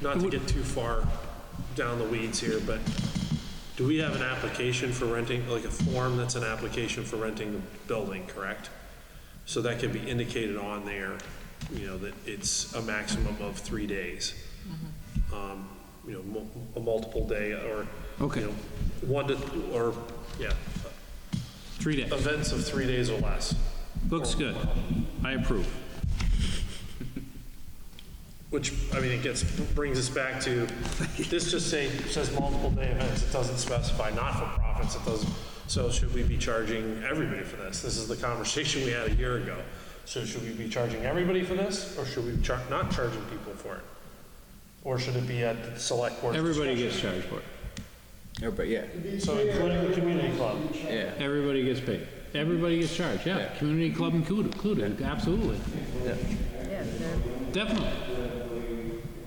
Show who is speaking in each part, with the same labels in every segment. Speaker 1: not to get too far down the weeds here, but do we have an application for renting, like a form that's an application for renting the building, correct? So that can be indicated on there, you know, that it's a maximum of three days. Um, You know, mul- a multiple day or,
Speaker 2: Okay.
Speaker 1: you know, one to, or, yeah,
Speaker 2: Three days.
Speaker 1: events of three days or less.
Speaker 2: Looks good. I approve.
Speaker 1: Which, I mean, it gets, brings us back to, this just say, says multiple day events, it doesn't specify not-for-profits, it doesn't, so should we be charging everybody for this? This is the conversation we had a year ago. So should we be charging everybody for this, or should we char, not charging people for it? Or should it be at the select board?
Speaker 2: Everybody
Speaker 1: discretion?
Speaker 2: gets charged for it.
Speaker 3: Everybody, yeah,
Speaker 1: So including the community club,
Speaker 3: yeah.
Speaker 2: Everybody gets paid. Everybody gets charged, yeah.
Speaker 3: Yeah.
Speaker 2: Community club included, included, absolutely.
Speaker 3: Yeah.
Speaker 2: Definitely.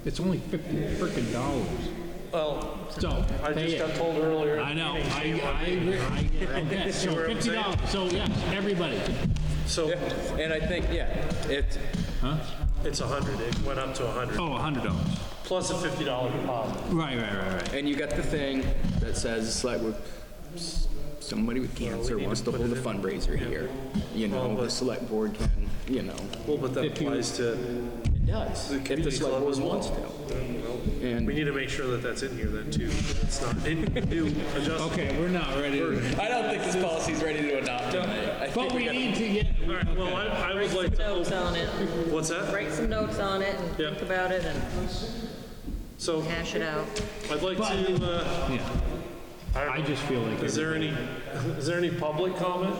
Speaker 2: It's only fifty frickin' dollars.
Speaker 1: well,
Speaker 2: So,
Speaker 1: I
Speaker 2: pay
Speaker 1: just
Speaker 2: it.
Speaker 1: got told earlier.
Speaker 2: I know, I, I agree, I, okay, so
Speaker 1: what I'm
Speaker 2: fifty dollars, so yes, everybody,
Speaker 1: So
Speaker 3: And I think, yeah, it's,
Speaker 2: huh?
Speaker 1: it's a hundred, it went up to a hundred,
Speaker 2: Oh, a hundred dollars.
Speaker 1: plus a fifty dollar deposit.
Speaker 2: Right, right, right, right.
Speaker 3: and you got the thing that says, it's like, we're- s- somebody with cancer wants to hold a fundraiser here. You know, the select board can, you know,
Speaker 1: Well, but that
Speaker 2: If you-
Speaker 1: applies to
Speaker 3: it does, if the
Speaker 1: community
Speaker 3: select
Speaker 1: club
Speaker 3: board
Speaker 1: as well.
Speaker 3: wants to.
Speaker 1: We
Speaker 3: And
Speaker 1: need to make sure that that's in here then too. It's not, it, new adjustment.
Speaker 2: Okay, we're not ready to,
Speaker 3: I don't think this policy's ready to adopt tonight. I think
Speaker 2: but we
Speaker 3: gotta-
Speaker 2: need to get,
Speaker 1: All right, well, I, I would like to,
Speaker 4: notes
Speaker 1: open-
Speaker 4: on it,
Speaker 1: what's that?
Speaker 4: write some notes on it and
Speaker 1: Yeah.
Speaker 4: think about it and
Speaker 1: So
Speaker 4: hash it out.
Speaker 1: I'd like to, uh,
Speaker 2: yeah, I just feel like
Speaker 1: is there any, is there any public comment?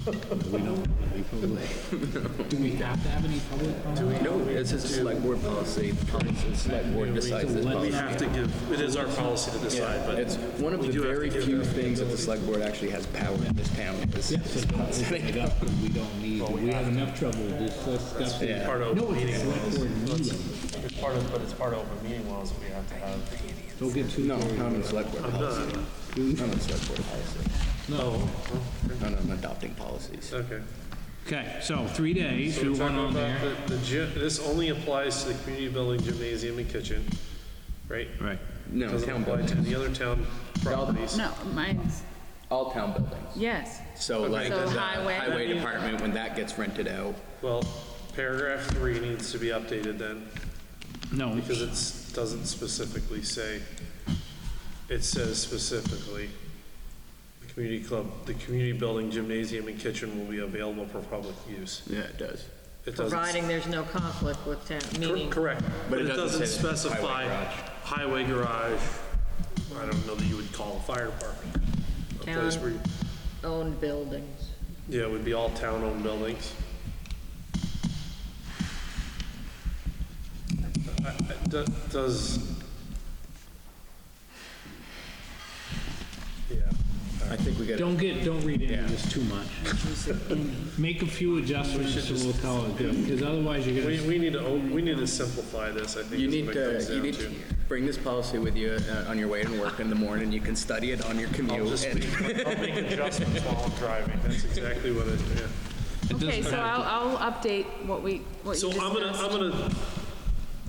Speaker 2: we don't wanna be public. Do we have to have any public comment?
Speaker 3: No, it's a select board policy, the select board decides this
Speaker 1: We
Speaker 3: policy.
Speaker 1: have to give, it is our policy to decide, but
Speaker 3: It's one of
Speaker 1: we
Speaker 3: the
Speaker 1: do have to
Speaker 3: very
Speaker 1: give
Speaker 3: few
Speaker 1: them-
Speaker 3: things that the select board actually has power in this town. is- is policy.
Speaker 2: It up, but We don't need, we have enough trouble with this stuff.
Speaker 3: Yeah.
Speaker 1: part of
Speaker 2: No,
Speaker 1: open meeting
Speaker 2: it's
Speaker 1: law.
Speaker 2: select board meeting.
Speaker 1: It's part of, but it's part of open meeting laws that we have to have.
Speaker 2: Don't get too
Speaker 3: No,
Speaker 2: worried.
Speaker 3: not on the select board policy. Not on the select board policy.
Speaker 1: No,
Speaker 3: Not on adopting policies.
Speaker 1: okay.
Speaker 2: Okay, so three days,
Speaker 1: So
Speaker 2: we
Speaker 1: we're
Speaker 2: want
Speaker 1: talking
Speaker 2: on
Speaker 1: about
Speaker 2: there.
Speaker 1: the, the gym, this only applies to the community building, gymnasium and kitchen, right?
Speaker 2: Right.
Speaker 3: No,
Speaker 1: Doesn't
Speaker 3: town
Speaker 1: apply to
Speaker 3: buildings.
Speaker 1: the other town properties.
Speaker 5: No, mine's,
Speaker 3: All town buildings.
Speaker 5: yes.
Speaker 3: So like
Speaker 5: So
Speaker 3: the
Speaker 5: highway.
Speaker 3: highway department, when that gets rented out,
Speaker 1: Well, paragraph three needs to be updated then,
Speaker 2: No,
Speaker 1: because it's, doesn't specifically say, it says specifically, the community club, the community building, gymnasium, and kitchen will be available for public use.
Speaker 3: yeah, it does.
Speaker 1: It doesn't-
Speaker 4: Providing there's no conflict with town,
Speaker 1: Cor-
Speaker 4: meaning
Speaker 1: Correct, but it doesn't
Speaker 3: say that it's
Speaker 1: specify highway
Speaker 3: highway
Speaker 1: garage, I don't know that you would call a fire department. A place where, you-
Speaker 4: town-owned buildings.
Speaker 1: yeah, it would be all town-owned buildings. I- I- do- Does,
Speaker 3: I think we got,
Speaker 2: don't get, don't read into this too much. Make a few adjustments so we'll call it good, because otherwise you're
Speaker 1: We,
Speaker 2: gonna,
Speaker 1: we need to, own- we need to simplify this, I think.
Speaker 3: you
Speaker 1: is
Speaker 3: need
Speaker 1: what it
Speaker 3: to,
Speaker 1: comes
Speaker 3: you
Speaker 1: down
Speaker 3: need to bring this policy with you uh, on your way to work in the morning. You can study it on your
Speaker 1: I'll
Speaker 3: commute.
Speaker 1: just
Speaker 3: and-
Speaker 1: make, I'll make adjustments while I'm driving, that's exactly what it, yeah.
Speaker 5: Okay, so I'll, I'll update what we, what
Speaker 1: So
Speaker 5: you
Speaker 1: I'm gonna, I'm
Speaker 5: discussed.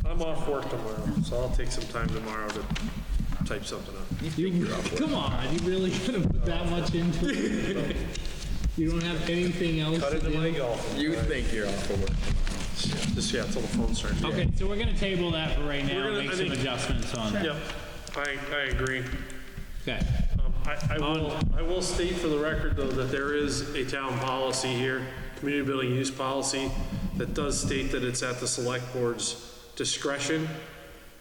Speaker 1: gonna, I'm off work tomorrow, so I'll take some time tomorrow to type something up.
Speaker 2: you, come on, you really gonna put that much into it? You don't have anything else
Speaker 1: Cut
Speaker 2: to
Speaker 1: into my
Speaker 2: do?
Speaker 1: golf.
Speaker 3: You think you're off of work.
Speaker 1: Just, yeah, till the phone starts.
Speaker 2: Okay, so we're gonna table that for right now,
Speaker 1: gonna-
Speaker 2: make
Speaker 1: I
Speaker 2: some
Speaker 1: think-
Speaker 2: adjustments on that.
Speaker 1: Yep, I, I agree.
Speaker 2: Okay,
Speaker 1: Um, I, I will, I will state for the record, though, that there is a town policy here, community building use policy, that does state that it's at the select board's discretion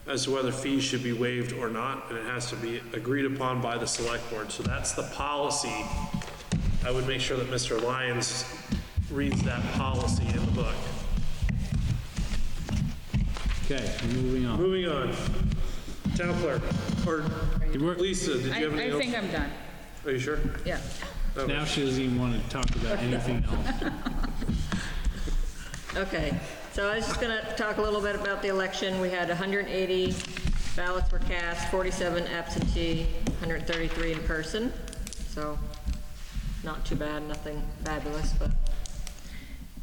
Speaker 1: as to whether fees should be waived or not, and it has to be agreed upon by the select board. So that's the policy. I would make sure that Mr. Lyons reads that policy in the book.
Speaker 2: okay, moving on.
Speaker 1: Moving on, town clerk, or Lisa, did you have
Speaker 5: I,
Speaker 1: anything
Speaker 5: I
Speaker 1: else?
Speaker 5: think I'm done,
Speaker 1: Are you sure?
Speaker 5: yeah.
Speaker 2: Now she doesn't even wanna talk about anything else.
Speaker 4: Okay, so I was just going to talk a little bit about the election. We had 180 ballots were cast, 47 absentee, 133 in person, so not too bad, nothing fabulous, but.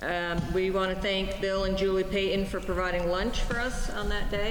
Speaker 4: Um, We want to thank Bill and Julie Payton for providing lunch for us on that day.